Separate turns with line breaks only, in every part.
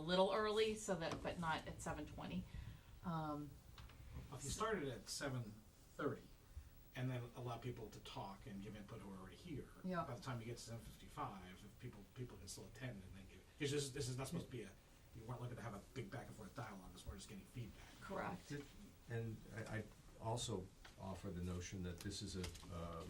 little early so that, but not at seven twenty. Um,
If you started at seven thirty, and then allow people to talk and give input who are already here.
Yeah.
By the time you get to seven fifty-five, if people, people can still attend and then give, it's just, this is not supposed to be a, you weren't looking to have a big back and forth dialogue, as we're just getting feedback.
correct,
And I, I also offer the notion that this is a, um,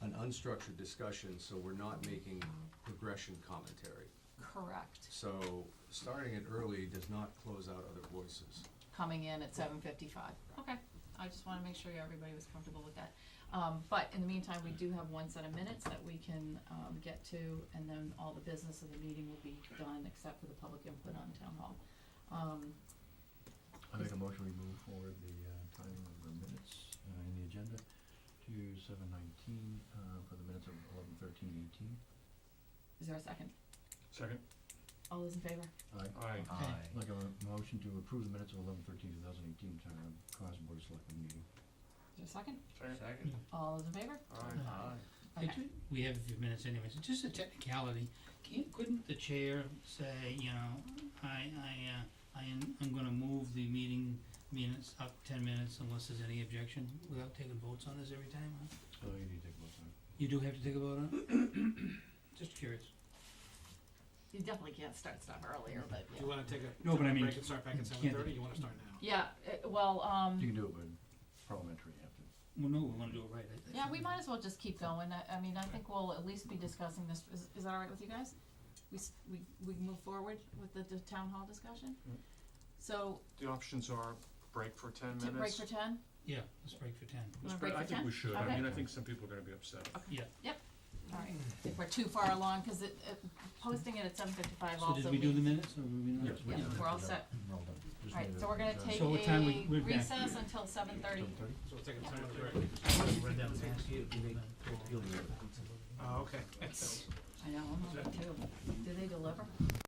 an unstructured discussion, so we're not making progression commentary.
correct.
So, starting it early does not close out other voices.
Coming in at seven fifty-five. Okay, I just wanna make sure everybody was comfortable with that. Um, but in the meantime, we do have one set of minutes that we can, um, get to, and then all the business of the meeting will be done except for the public input on town hall. Um,
I make a motion, we move forward the uh, timing of the minutes uh, in the agenda to seven nineteen uh, for the minutes of eleven thirteen eighteen.
is there a second?
Second.
All those in favor?
Aye.
Aye.
Aye. Make a motion to approve the minutes of eleven thirteen two thousand eighteen town council board of selectmen meeting.
Is there a second?
Second.
All those in favor?
Aye.
Okay.
It- We have a few minutes anyways, It's just a technicality, can't, couldn't the chair say, you know, I, I, uh, I am, I'm gonna move the meeting minutes up ten minutes unless there's any objection, without taking votes on this every time, huh?
So you need to take a vote on it.
You do have to take a vote on it? Just curious.
You definitely can't start stuff earlier, but
Do you
yeah.
wanna take a,
No,
take
but I
a
mean,
break and start back at
you can't-
seven thirty, you wanna start now?
Yeah, uh, well,
You
um,
can do it, but parliamentary, you have to.
Well, no, we wanna do it right, I think.
yeah, we might as well just keep going. I, I mean, I think we'll at least be discussing this. Is, is that all right with you guys? We, s- we, we move forward with the, the town hall discussion?
Mm.
So,
The options are break for ten
to
minutes.
break for ten?
Yeah, let's break for ten,
Wanna
Let's
break
I
for
think
10?
we should, I
Okay.
mean, I think some people are gonna be upset.
yeah.
All right, if we're too far along, cause it, it, posting it at seven fifty-five
So
also.
did we do the
means-
minutes or were we not?
Yes, we
Yeah,
did.
we're all set.
We're all done. Just
All right,
need
so
a-
we're gonna
uh,
take
So what time we- we're
a
back?
recess until seven thirty.
7:30?
So we'll take a
Yeah.
ten minute break.
You'll do it.
Oh, okay.
I know, I'm on it too. Do they deliver?